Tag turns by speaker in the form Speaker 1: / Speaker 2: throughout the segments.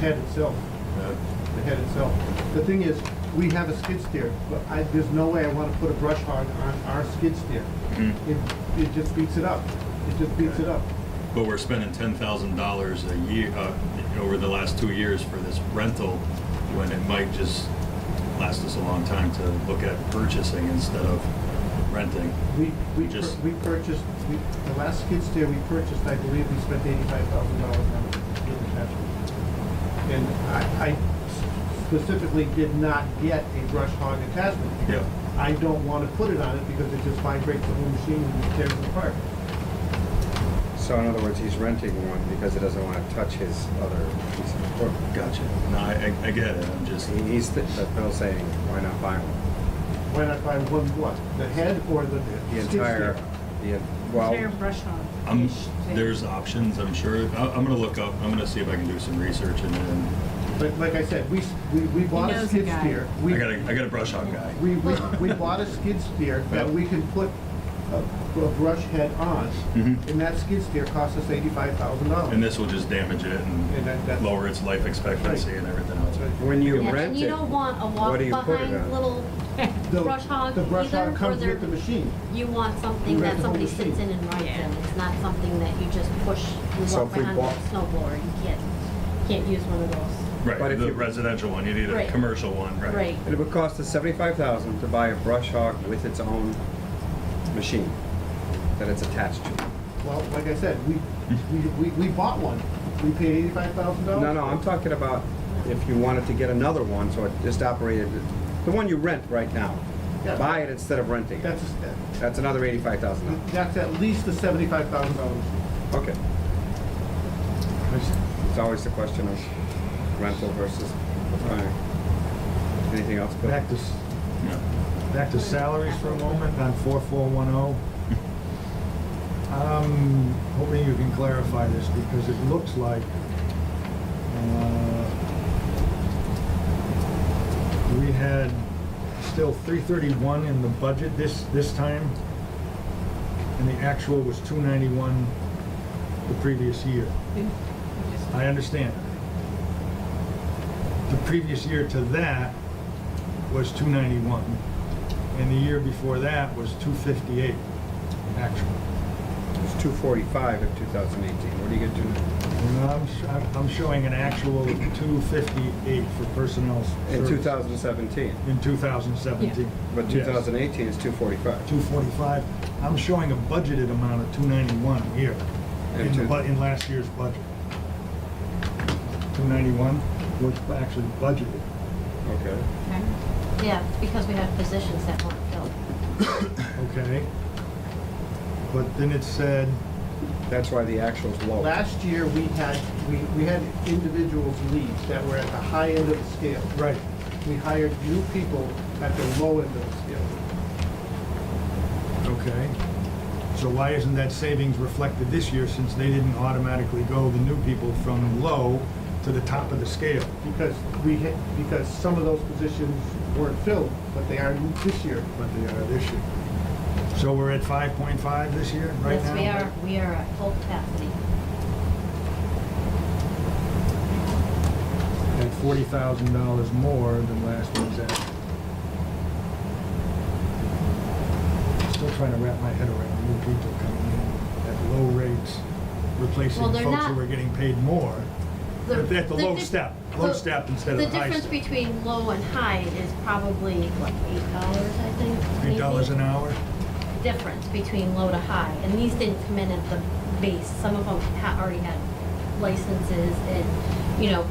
Speaker 1: head itself,
Speaker 2: Uh,
Speaker 1: the head itself. The thing is, we have a skid steer, but I, there's no way I wanna put a brush hog on our skid steer. It, it just beats it up. It just beats it up.
Speaker 2: But we're spending ten thousand dollars a year, uh, over the last two years for this rental, when it might just last us a long time to look at purchasing instead of renting.
Speaker 1: We, we, pur-
Speaker 2: Just-
Speaker 1: we purchased, we, the last skid steer we purchased, I believe we spent eighty-five thousand dollars on it. And I, I specifically did not get a brush hog attachment. because I don't wanna put it on it because it just vibrates the whole machine and tears it apart.
Speaker 3: So in other words, he's renting one because he doesn't want to touch his other piece of equipment.
Speaker 2: Gotcha. No, I, I- I get it, I'm just,
Speaker 3: He- He's, th- but Bill's saying, why not buy one?
Speaker 1: Why not buy one what? The head or the
Speaker 3: The
Speaker 1: skid steer?
Speaker 3: entire, the, well,
Speaker 4: Clear brush hog.
Speaker 2: I'm,
Speaker 4: Ish thing.
Speaker 2: there's options, I'm sure. I, I'm gonna look up, I'm gonna see if I can do some research and then,
Speaker 1: But like I said, we, s- we, we bought
Speaker 4: knows
Speaker 1: a
Speaker 4: the
Speaker 1: skid
Speaker 4: guy.
Speaker 1: steer. We-
Speaker 2: I got a, I got a brush hog guy.
Speaker 1: We, we, we bought a skid steer that
Speaker 2: Yeah.
Speaker 1: we can put a, a brush head on,
Speaker 3: Mm-hmm.
Speaker 2: Mhm.
Speaker 1: and that skid steer cost us eighty-five thousand dollars.
Speaker 2: And this will just damage it
Speaker 1: And that-
Speaker 2: and
Speaker 1: that's-
Speaker 2: lower its life expectancy and everything else.
Speaker 3: when you
Speaker 5: Yeah,
Speaker 3: rent
Speaker 5: and
Speaker 3: it.
Speaker 5: you don't want a
Speaker 3: what
Speaker 5: walk
Speaker 3: do you put it
Speaker 5: behind
Speaker 3: on?
Speaker 5: little
Speaker 1: The-
Speaker 5: brush hog
Speaker 1: The brush
Speaker 5: either,
Speaker 1: hog
Speaker 5: or
Speaker 1: comes
Speaker 5: they're,
Speaker 1: with the machine.
Speaker 5: you want
Speaker 1: You rent
Speaker 5: something that
Speaker 1: the whole
Speaker 5: somebody sits
Speaker 1: machine.
Speaker 5: in and rides
Speaker 4: Yeah.
Speaker 5: in. It's not something that you just push, you
Speaker 3: So
Speaker 5: walk
Speaker 3: if we
Speaker 5: behind with
Speaker 3: bought-
Speaker 5: a snow blower. You can't, can't use one of those.
Speaker 3: But
Speaker 2: Right,
Speaker 3: if
Speaker 2: the
Speaker 3: you-
Speaker 2: residential one, you need a
Speaker 5: Right.
Speaker 2: commercial one, right?
Speaker 5: Right.
Speaker 3: It would cost us seventy-five thousand to buy a brush hog with its own machine that it's attached to.
Speaker 1: Well, like I said, we, we, we, we bought one. We paid eighty-five thousand dollars.
Speaker 3: No, no, I'm talking about if you wanted to get another one, so it just operated, the one you rent right now.
Speaker 1: Yeah.
Speaker 3: Buy it instead of renting it.
Speaker 1: That's, a-
Speaker 3: That's another eighty-five thousand dollars.
Speaker 1: that's at least a seventy-five thousand dollars.
Speaker 3: Okay. It's always the question of rental versus buying. Anything else, Bill?
Speaker 6: Back to, s-
Speaker 2: Yeah.
Speaker 6: back to salaries for a moment on four four one oh. I'm hoping you can clarify this because it looks like, uh, we had still three thirty-one in the budget this, this time. And the actual was two ninety-one the previous year. I understand. The previous year to that was 291, and the year before that was 258, actually.
Speaker 3: It was two forty-five in two thousand eighteen. What do you get to
Speaker 6: And I'm, sh- I'm- I'm showing an actual 258 for personnel.
Speaker 3: in
Speaker 6: service.
Speaker 3: two thousand seventeen?
Speaker 6: In 2017.
Speaker 3: But two
Speaker 6: Yes.
Speaker 3: thousand eighteen is two forty-five.
Speaker 6: 245, I'm showing a budgeted amount of 291 here,
Speaker 3: And
Speaker 6: in the,
Speaker 3: two-
Speaker 6: bu- in last year's budget. 291 was actually budgeted.
Speaker 3: Okay.
Speaker 4: Okay.
Speaker 5: Yeah, because we have positions that weren't filled.
Speaker 6: Okay. But then it said,
Speaker 3: That's why the actual's low.
Speaker 1: Last year, we had, we, we had individuals leave that were at the high end of the scale.
Speaker 6: right,
Speaker 1: We hired new people at the low end of the scale.
Speaker 6: okay. So why isn't that savings reflected this year since they didn't automatically go, the new people, from low to the top of the scale?
Speaker 1: because we, hit- because some of those positions weren't filled, but they are this year.
Speaker 6: But they are this year. So we're at 5.5 this year, right
Speaker 5: Yes,
Speaker 6: now?
Speaker 5: we are, we are at full capacity.
Speaker 6: At $40,000 more than last year's act. Still trying to wrap my head around new people coming in at low rates, replacing
Speaker 5: Well, they're
Speaker 6: folks who
Speaker 5: not-
Speaker 6: are getting paid more. At the low
Speaker 5: dif-
Speaker 6: step, low step instead of the high
Speaker 5: The
Speaker 6: step.
Speaker 5: difference between low and high is probably, what, eight dollars, I think?
Speaker 6: Eight dollars
Speaker 5: maybe?
Speaker 6: an hour?
Speaker 5: difference between low to high, and these didn't come in at the base. Some of them ha- already had licenses and, you know,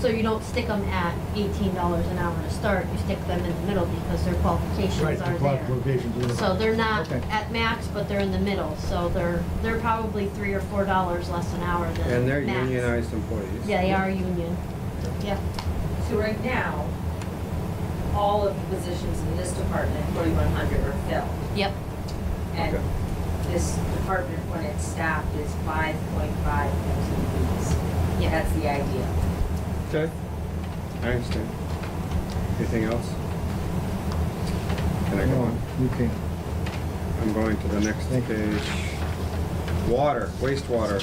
Speaker 5: so you don't stick them at eighteen dollars an hour to start, you stick them in the middle because their
Speaker 6: Right,
Speaker 5: qualifications
Speaker 6: the
Speaker 5: are there.
Speaker 6: qualifications are there.
Speaker 5: So they're not
Speaker 6: Okay.
Speaker 5: at max, but they're in the middle, so they're, they're probably three or four dollars less an hour than max.
Speaker 3: And they're unionized employees.
Speaker 5: Yeah, they are union, yeah.
Speaker 7: So right now, all of the positions in this department, forty-one hundred are filled.
Speaker 5: Yep.
Speaker 7: And
Speaker 3: Okay.
Speaker 7: this department, when it's staffed, is five point five FTEs.
Speaker 5: Yeah.
Speaker 7: Yeah, that's the idea.
Speaker 3: Okay, I understand. Anything else? Can I go
Speaker 6: No,
Speaker 3: on?
Speaker 6: you can't.
Speaker 3: I'm going to the next
Speaker 6: Thank you.
Speaker 3: page. Water, wastewater.